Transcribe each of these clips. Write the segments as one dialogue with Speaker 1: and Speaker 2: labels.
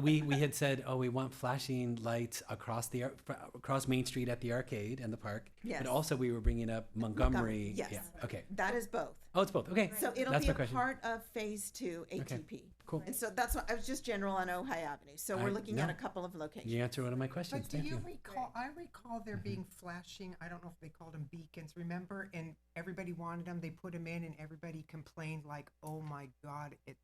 Speaker 1: we we had said, oh, we want flashing lights across the ar- fr- across Main Street at the arcade and the park.
Speaker 2: Yes.
Speaker 1: But also, we were bringing up Montgomery.
Speaker 2: yes.
Speaker 1: Yeah. Okay.
Speaker 2: That is both.
Speaker 1: Oh, it's both. Okay.
Speaker 2: So it'll
Speaker 1: That's my
Speaker 2: be a
Speaker 1: question.
Speaker 2: part of phase two ATP.
Speaker 1: Cool.
Speaker 2: And so that's what I was just general on Ojai Avenue. So
Speaker 1: I-
Speaker 2: we're looking at
Speaker 1: no.
Speaker 2: a couple of locations.
Speaker 1: You answered one of my questions.
Speaker 3: But do
Speaker 1: Thank
Speaker 3: you
Speaker 1: you.
Speaker 3: recall, I recall there being flashing, I don't know if they called them beacons, remember? And everybody wanted them, they put them in and everybody complained like, oh my God, it's.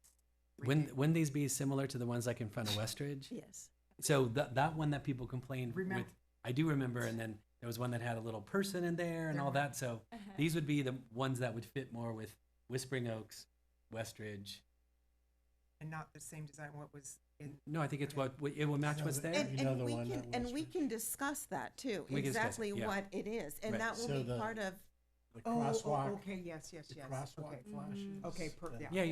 Speaker 1: When
Speaker 3: ridic-"
Speaker 1: when these be similar to the ones like in front of Westridge?
Speaker 2: Yes.
Speaker 1: So that that one that people complained
Speaker 3: Remember-
Speaker 1: with, I do remember, and then there was one that had a little person in there and all that. So these would be the ones that would fit more with Whispering Oaks, Westridge.
Speaker 3: And not the same design, what was in,
Speaker 1: No, I think it's what it will match
Speaker 4: So
Speaker 1: what's
Speaker 4: the-
Speaker 1: there.
Speaker 2: And,
Speaker 4: You know
Speaker 2: and
Speaker 4: the
Speaker 2: we
Speaker 4: one
Speaker 2: can,
Speaker 4: that
Speaker 2: and
Speaker 4: was
Speaker 2: we
Speaker 4: with-
Speaker 2: can discuss that too,
Speaker 1: We can discuss it,
Speaker 2: exactly
Speaker 1: yeah.
Speaker 2: what it is. And
Speaker 1: Right.
Speaker 2: that will
Speaker 4: So
Speaker 2: be
Speaker 4: the-
Speaker 2: part of,
Speaker 4: The
Speaker 3: oh, oh,
Speaker 4: crosswalk,
Speaker 3: okay, yes, yes,
Speaker 4: the
Speaker 3: yes.
Speaker 4: crosswalk
Speaker 3: okay.
Speaker 4: flashes.
Speaker 3: Okay, per-
Speaker 4: that-
Speaker 3: yeah.
Speaker 1: yeah, yeah,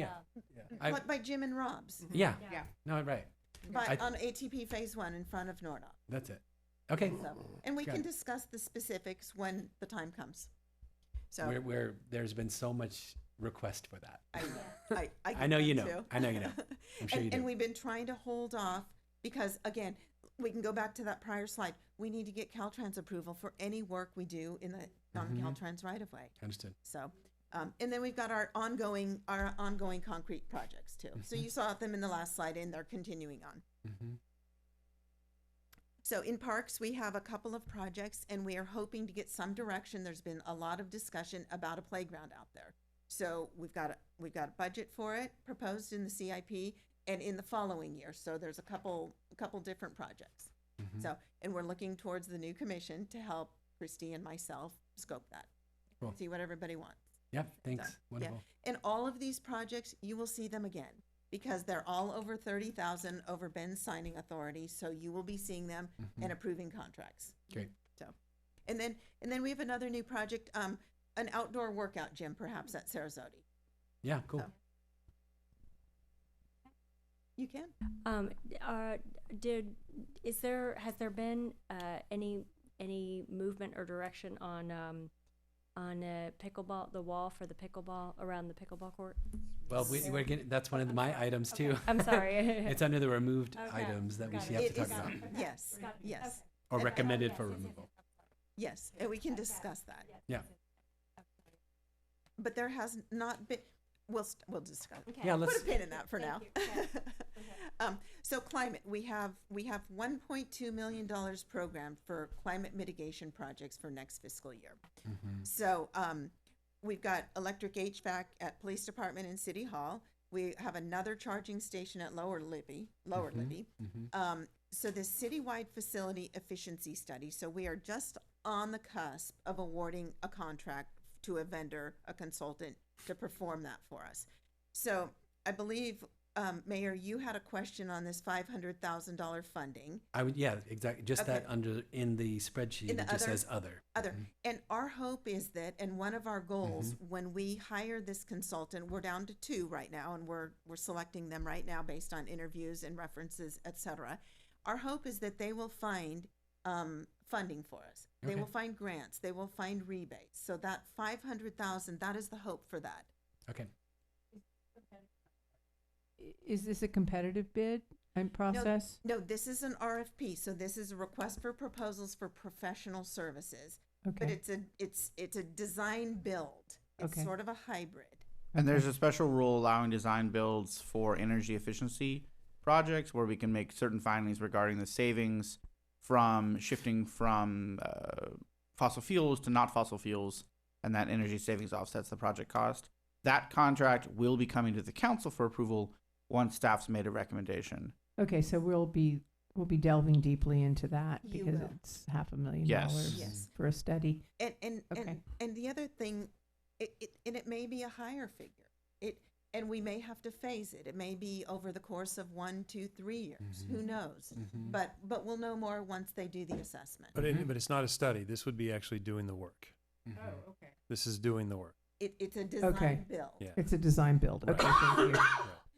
Speaker 4: yeah.
Speaker 1: I- Mm-hmm.
Speaker 2: what by Jim and Rob's,
Speaker 3: Mhm.
Speaker 1: yeah.
Speaker 3: Yeah,
Speaker 1: No, right.
Speaker 2: but
Speaker 1: I-
Speaker 2: on ATP phase one in front of Nordop.
Speaker 1: That's it. Okay.
Speaker 2: So, and we
Speaker 1: Got
Speaker 2: can
Speaker 1: it.
Speaker 2: discuss the specifics when the time comes. So
Speaker 1: Where where there's been so much request for that.
Speaker 2: I, I, I.
Speaker 1: I
Speaker 2: get
Speaker 1: know
Speaker 2: that
Speaker 1: you know.
Speaker 2: too.
Speaker 1: I know you know. I'm sure
Speaker 2: and,
Speaker 1: you do.
Speaker 2: and we've been trying to hold off because again, we can go back to that prior slide. We need to get Caltrans approval for any work we do in the
Speaker 1: Mm-hmm.
Speaker 2: non-Caltrans right of way.
Speaker 1: Understood.
Speaker 2: So, um, and then we've got our ongoing, our ongoing concrete projects too. So
Speaker 1: Mm-hmm.
Speaker 2: you saw them in the last slide and they're continuing on.
Speaker 1: hmm
Speaker 2: So in parks, we have a couple of projects and we are hoping to get some direction. There's been a lot of discussion about a playground out there. So we've got, a we've got a budget for it proposed in the CIP and in the following year. So there's a couple, a couple different projects.
Speaker 1: mm-hmm.
Speaker 2: So, and we're looking towards the new commission to help Christy and myself scope that.
Speaker 1: Cool.
Speaker 2: See what everybody wants.
Speaker 1: Yep. Thanks.
Speaker 2: So, yeah.
Speaker 1: Wonderful.
Speaker 2: And all of these projects, you will see them again because they're all over thirty thousand over Ben's signing authority, so you will be seeing them
Speaker 1: Mm-hmm.
Speaker 2: and approving contracts.
Speaker 1: Mm. Great.
Speaker 2: So, and then, and then we have another new project, um, an outdoor workout gym perhaps at Sarasota.
Speaker 1: Yeah. Cool.
Speaker 2: So- You can?
Speaker 5: Um, uh, did, is there, has there been, uh, any, any movement or direction on, um, on, uh, pickleball, the wall for the pickleball, around the pickleball court?
Speaker 1: Well, we, we're getting, that's one of my items too.
Speaker 5: I'm sorry.
Speaker 1: It's under the removed
Speaker 5: Okay,
Speaker 1: items that we
Speaker 5: got
Speaker 1: should
Speaker 5: it.
Speaker 1: have to
Speaker 2: It
Speaker 1: talk
Speaker 2: is,
Speaker 1: about,
Speaker 2: yes, yes,
Speaker 1: or
Speaker 2: Okay.
Speaker 1: recommended for removal.
Speaker 2: yes, and we can discuss that.
Speaker 1: Yeah,
Speaker 2: But there has not been, we'll, st- we'll discuss.
Speaker 1: yeah, let's,
Speaker 2: Put a pin in that for now. Um, so climate, we have, we have one point two million dollars programmed for climate mitigation projects for next fiscal year.
Speaker 1: Mm-hmm.
Speaker 2: So, um, we've got electric HVAC at police department and city hall. We have another charging station at Lower Libby, Lower
Speaker 1: Mm-hmm.
Speaker 2: Libby. Um, so the citywide facility efficiency study, so we are just on the cusp of awarding a contract to a vendor, a consultant to perform that for us. So I believe, um, Mayor, you had a question on this five hundred thousand dollar funding.
Speaker 1: I would, yeah, exactly, just
Speaker 2: Okay.
Speaker 1: that under, in the spreadsheet,
Speaker 2: In
Speaker 1: it
Speaker 2: the
Speaker 1: just
Speaker 2: other-
Speaker 1: says other.
Speaker 2: Other, and our hope is that, and one of our goals, when we hire this consultant, we're down to two right now, and we're, we're selecting them right now based on interviews and references, et cetera. Our hope is that they will find, um, funding for us. They will
Speaker 1: Okay.
Speaker 2: find grants, they will find rebates. So that five hundred thousand, that is the hope for that.
Speaker 1: Okay,
Speaker 6: I- Is this a competitive bid and process?
Speaker 2: No, this is an RFP, so this is a request for proposals for professional services. But
Speaker 6: Okay,
Speaker 2: it's a, it's, it's a design build. It's
Speaker 6: Okay.
Speaker 2: sort of a hybrid.
Speaker 7: And there's a special rule allowing design builds for energy efficiency projects where we can make certain findings regarding the savings from shifting from uh, fossil fuels to not fossil fuels, and that energy savings offsets the project cost. That contract will be coming to the council for approval once staff's made a recommendation.
Speaker 6: okay, so we'll be, we'll be delving deeply into that
Speaker 2: You
Speaker 6: because
Speaker 2: will.
Speaker 6: it's half a million
Speaker 7: Yes.
Speaker 6: dollars
Speaker 2: Yes.
Speaker 6: for a study.
Speaker 2: And, and, and,
Speaker 6: Okay.
Speaker 2: and the other thing, it, it, and it may be a higher figure. It, and we may have to phase it. It may be over the course of one, two, three years, who knows?
Speaker 1: Mm-hmm.
Speaker 2: But, but we'll know more once they do the assessment.
Speaker 4: But it, but it's not a study. This would be actually doing the work.
Speaker 3: Oh, okay.
Speaker 4: This is doing the work.
Speaker 2: It, it's a
Speaker 6: Okay.
Speaker 2: design build.
Speaker 4: Yeah.
Speaker 6: It's a design build. Okay, thank you.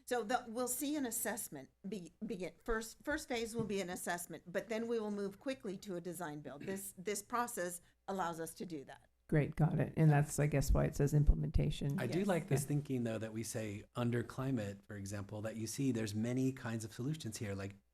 Speaker 2: So the, we'll see an assessment be, begin, first, first phase will be an assessment, but then we will move quickly to a design build. This, this process allows us to do that.
Speaker 6: Great, got it. And that's, I guess, why it says implementation.
Speaker 1: I do
Speaker 2: Yes.
Speaker 1: like this thinking though, that we say under climate, for example, that you see there's many kinds of solutions here, like